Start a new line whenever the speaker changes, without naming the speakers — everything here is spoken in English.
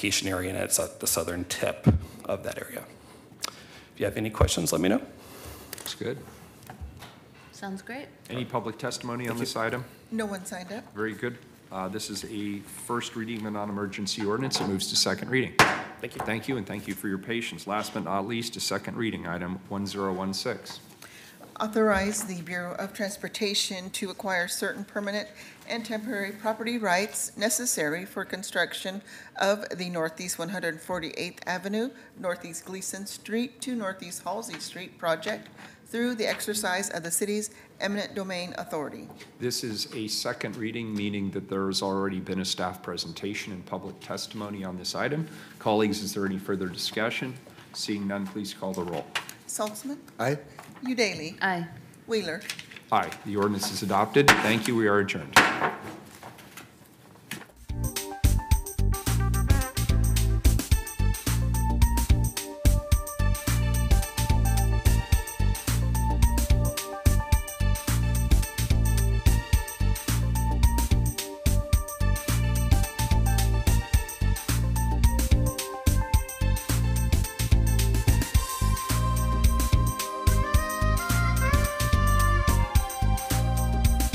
vacation area, and it's at the southern tip of that area. If you have any questions, let me know.
That's good.
Sounds great.
Any public testimony on this item?
No one signed up.
Very good. Uh, This is a first reading of a non-emergency ordinance. It moves to second reading. Thank you. Thank you, and thank you for your patience. Last but not least, a second reading, item 1016.
Authorize the Bureau of Transportation to acquire certain permanent and temporary property rights necessary for construction of the Northeast 148th Avenue, Northeast Gleason Street to Northeast Halsey Street project through the exercise of the city's eminent domain authority.
This is a second reading, meaning that there has already been a staff presentation and public testimony on this item. Colleagues, is there any further discussion? Seeing none, please call the roll.
Saltzman,
Aye.
Udalee,
Aye.
Wheeler.
Aye, the ordinance is adopted. Thank you, we are adjourned.